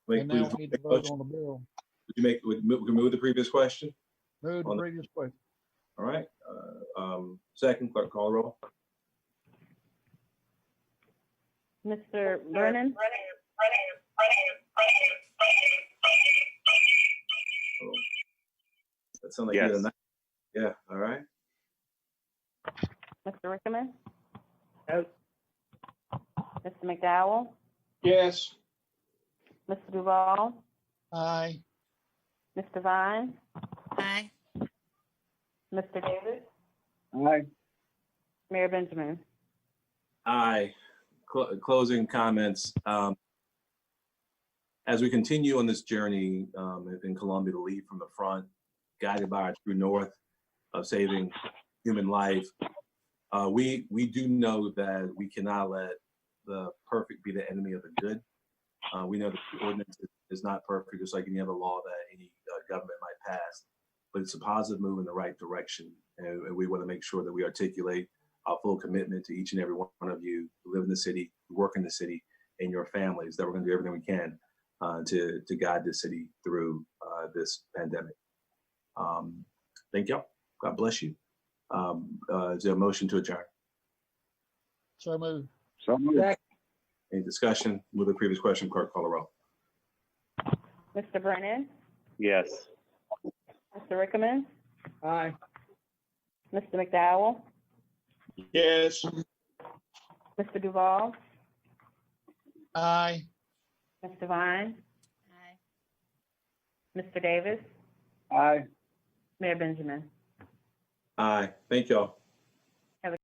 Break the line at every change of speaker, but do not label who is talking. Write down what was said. Make-
And now
please
we need to
make a
vote
motion.
on the bill.
Would you make, would, move- we can move the previous question?
Move the
On the-
previous question.
All right, uh, um, second, clerk call the roll.
Mr. Vernon,
Oh. That sounds like you had a
Yes.
nice- Yeah, all right.
Mr. Rickman,
Yes.
Mr. McDowell,
Yes.
Mr. Duval,
Aye.
Mr. Vine,
Aye.
Mr. Davis,
Aye.
Mayor Benjamin.
Aye. Cl- Closing comments. Um, As we continue on this journey um, in Colombia to lead from the front, guided by our true north of saving human life, uh, we, we do know that we cannot let the perfect be the enemy of the good. Uh, We know that the ordinance is- is not perfect, just like any other law that any uh, government might pass, but it's a positive move in the right direction. And and we want to make sure that we articulate our full commitment to each and every one of you who live in the city, who work in the city, and your families that we're going to do everything we can uh, to to guide the city through uh, this pandemic. Um, thank y'all. God bless you. Um, uh, is there a motion to adjourn?
So move.
So moved.
Any discussion? Move the previous question, clerk call the roll.
Mr. Brennan,
Yes.
Mr. Rickman,
Aye.
Mr. McDowell,
Yes.
Mr. Duval,
Aye.
Mr. Vine,
Aye.
Mr. Davis,
Aye.
Mayor Benjamin.
Aye. Thank y'all.